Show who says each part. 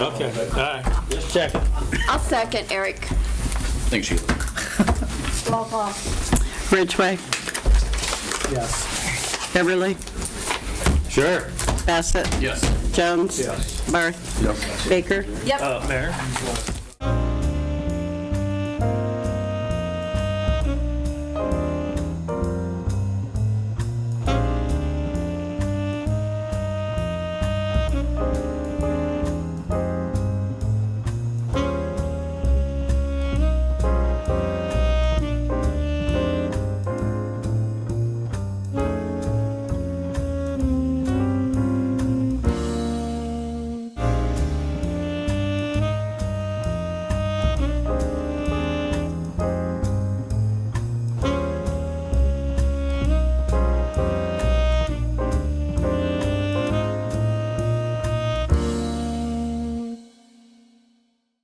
Speaker 1: Okay, all right, just checking.
Speaker 2: I'll second Eric.
Speaker 3: Thanks, Sheila.
Speaker 2: Roll call.
Speaker 4: Ridgway,
Speaker 5: Yes.
Speaker 4: Beverly,
Speaker 1: Sure.
Speaker 4: Bassett,
Speaker 3: Yes.
Speaker 4: Jones,
Speaker 5: Yes.
Speaker 4: Barth, Baker.
Speaker 2: Yep.
Speaker 1: Mayor?